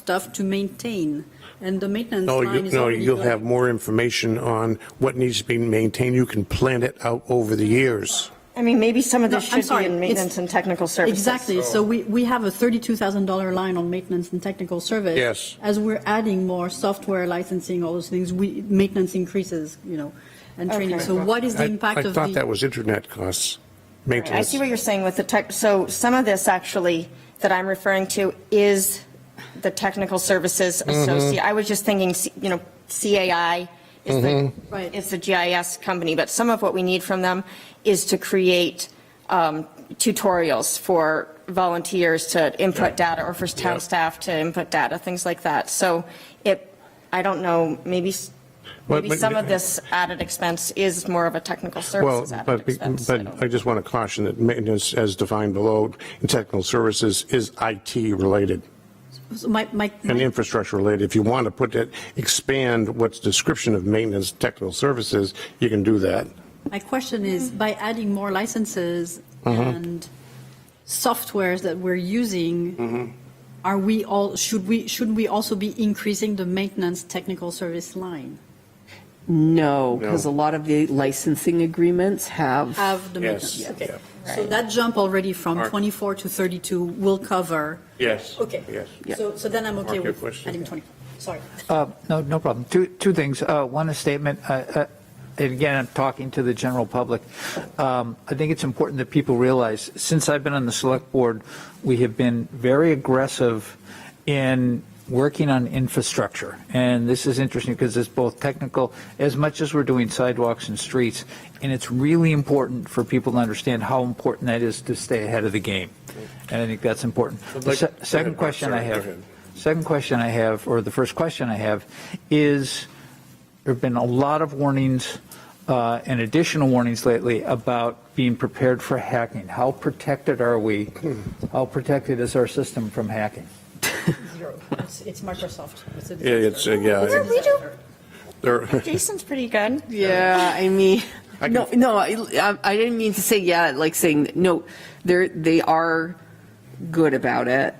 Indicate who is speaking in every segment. Speaker 1: stuff to maintain, and the maintenance
Speaker 2: No,
Speaker 1: line
Speaker 2: you,
Speaker 1: is
Speaker 2: no,
Speaker 1: already
Speaker 2: you'll
Speaker 1: done.
Speaker 2: have more information on what needs to be maintained. You can plan it out over the years.
Speaker 3: I mean, maybe some of
Speaker 1: No,
Speaker 3: this
Speaker 1: I'm
Speaker 3: should
Speaker 1: sorry,
Speaker 3: be in
Speaker 1: it's-
Speaker 3: maintenance and technical services.
Speaker 1: Exactly, so we, we have a $32,000 line on maintenance and technical service.
Speaker 2: Yes.
Speaker 1: As we're adding more software licensing, all those things, we, maintenance increases, you know, and training.
Speaker 3: Okay.
Speaker 1: So what is the
Speaker 2: I,
Speaker 1: impact
Speaker 2: I
Speaker 1: of
Speaker 2: thought that
Speaker 1: the?
Speaker 2: was internet costs,
Speaker 3: I
Speaker 2: maintenance.
Speaker 3: see what you're saying with the tech, so some of this actually that I'm referring to is the technical services associate. I was just thinking, you know, CAI is the,
Speaker 1: Right.
Speaker 3: is the GIS company, but some of what we need from them is to create um, tutorials for volunteers to input data or for
Speaker 2: Yeah.
Speaker 3: town staff to input data, things like that. So it, I don't know, maybe, s-
Speaker 2: But-
Speaker 3: maybe
Speaker 2: but-
Speaker 3: some of this added expense is more of a technical
Speaker 2: Well,
Speaker 3: services added
Speaker 2: but,
Speaker 3: expense. I don't
Speaker 2: but I just want to caution that maintenance as defined below in technical services is IT related
Speaker 1: so My, my,
Speaker 2: and
Speaker 1: my-
Speaker 2: infrastructure related. If you want to put it, expand what's description of maintenance technical services, you can do that.
Speaker 1: my question is, by adding more licenses
Speaker 2: Mm-hmm.
Speaker 1: and softwares that we're
Speaker 2: Mm-hmm.
Speaker 1: using, are we all, should we, should we also be increasing the maintenance technical service line?
Speaker 4: No,
Speaker 2: No.
Speaker 4: because a lot of the licensing agreements have.
Speaker 1: Have the
Speaker 2: Yes,
Speaker 1: maintenance, okay.
Speaker 3: yeah.
Speaker 1: So that jump already from
Speaker 2: Mark.
Speaker 1: 24 to 32 will cover?
Speaker 2: Yes.
Speaker 1: Okay.
Speaker 2: Yes.
Speaker 1: So, so then I'm
Speaker 2: Mark,
Speaker 1: okay
Speaker 2: your
Speaker 1: with
Speaker 2: question.
Speaker 1: adding 24, sorry.
Speaker 5: Uh, No, no problem. Two, two things. Uh, One, a statement, uh, uh, and again, I'm talking to the general public. Um, I think it's important that people realize, since I've been on the select board, we have been very aggressive in working on infrastructure. And this is interesting because it's both technical, as much as we're doing sidewalks and streets, and it's really important for people to understand how important that is to stay ahead of the game. And I think that's important.
Speaker 2: I'd
Speaker 5: The
Speaker 2: like-
Speaker 5: se-
Speaker 2: go ahead,
Speaker 5: second
Speaker 2: Mark.
Speaker 5: question I
Speaker 2: Sorry, go
Speaker 5: have.
Speaker 2: ahead.
Speaker 5: Second question I have, or the first question I have, is there have been a lot of warnings uh, and additional warnings lately about being prepared for hacking. How protected are we? How protected is our system from hacking?
Speaker 1: Zero. It's it's Microsoft. It's a
Speaker 2: Yeah, it's, uh, yeah.
Speaker 3: know. We do
Speaker 2: There-
Speaker 3: Jason's pretty good.
Speaker 4: Yeah, I mean,
Speaker 2: I
Speaker 4: no,
Speaker 2: can-
Speaker 4: no, I, I- I didn't mean to say, yeah, like saying, no, they're, they are good about it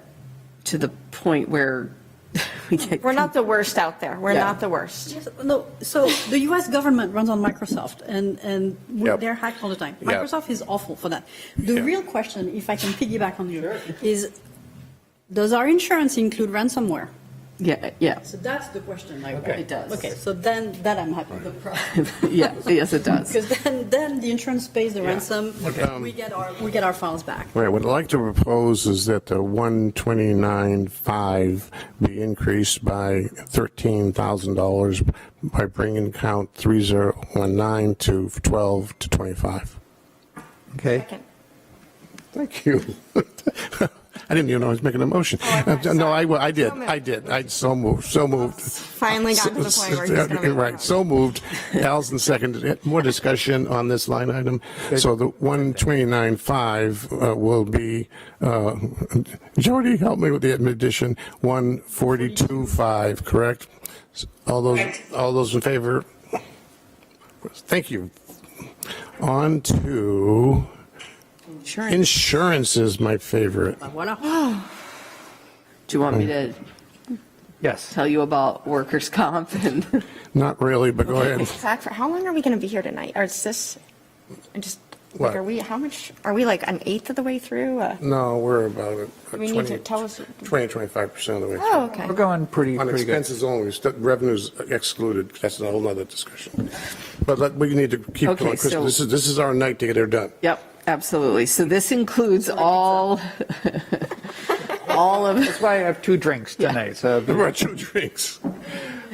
Speaker 4: to the point where we get.
Speaker 3: We're not the worst out there. We're
Speaker 4: Yeah.
Speaker 3: not the worst.
Speaker 1: Yes, No, so the US government runs on Microsoft and, and we-
Speaker 2: Yep.
Speaker 1: they're hacked all the time.
Speaker 2: Yep.
Speaker 1: Microsoft is awful for that. The
Speaker 2: Yeah.
Speaker 1: real question, if I can piggyback on you, is does our insurance include ransomware?
Speaker 4: Yeah, yeah,
Speaker 1: So that's the question. I-
Speaker 4: Okay. It does.
Speaker 1: Okay, so then, that I'm happy. The pro-
Speaker 4: yeah, yes, it does.
Speaker 1: Because then, then the insurance pays the ransom,
Speaker 2: Um,
Speaker 1: we get our, we get our files back.
Speaker 2: Right, what I'd like to propose is that the 129.5 be increased by $13,000 by bringing count 3019 to 12 to 25.
Speaker 5: Okay?
Speaker 2: Thank you. I didn't even know I was making a motion. Uh,
Speaker 3: I thought-
Speaker 2: No, I, I did,
Speaker 3: Oh, So moved.
Speaker 2: I did, I, so moved, so moved.
Speaker 3: Finally got to the point where he's going to make.
Speaker 2: Right, so moved. Allison seconded it. More discussion on this line item. So the 129.5 uh, will be, uh, Jody, help me with the addition, 142.5, correct? All those, all those in favor? Thank you. On to,
Speaker 4: Insurance.
Speaker 2: insurance is my favorite.
Speaker 1: Voila.
Speaker 4: Do you want me to
Speaker 2: Mm.
Speaker 5: Yes.
Speaker 4: tell you about workers' comp and?
Speaker 2: Not really, but go ahead.
Speaker 3: Zach, for how long are we going to be here tonight? Or is this, I just,
Speaker 2: What?
Speaker 3: like, are we, how much, are we like an eighth of the way through? Uh,
Speaker 2: No, we're about uh,
Speaker 3: We need
Speaker 2: 20,
Speaker 3: to tell us-
Speaker 2: 20, 25% of the way. through.
Speaker 3: Oh, okay.
Speaker 5: We're going pretty,
Speaker 2: On
Speaker 5: pretty good.
Speaker 2: expenses only, st- revenues excluded, that's a whole nother discussion. But let- we need to keep
Speaker 4: Okay,
Speaker 2: going, Chris,
Speaker 4: so-
Speaker 2: this is, this is our night to get her done.
Speaker 4: Yep, absolutely. So this includes all, all of.
Speaker 5: That's why I have two drinks tonight, so.
Speaker 2: There were two drinks. All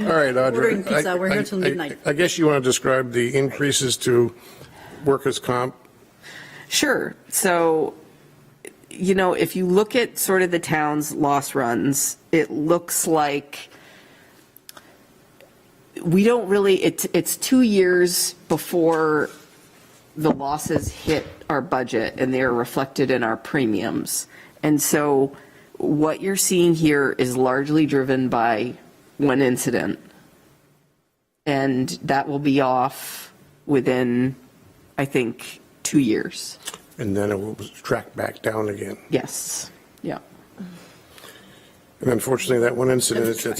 Speaker 2: right, Audrey.
Speaker 1: Ordering pizza,
Speaker 2: I-
Speaker 1: we're here
Speaker 2: I-
Speaker 1: till
Speaker 2: I-
Speaker 1: midnight.
Speaker 2: I guess you want to describe the increases to workers' comp,
Speaker 4: Sure. So, you know, if you look at sort of the town's loss runs, it looks like we don't really, it's, it's two years before the losses hit our budget and they are reflected in our premiums. And so what you're seeing here is largely driven by one incident. And that will be off within, I think, two years.
Speaker 2: and then it will track back down again.
Speaker 4: Yes, yeah.
Speaker 2: And unfortunately, that one incident, it's-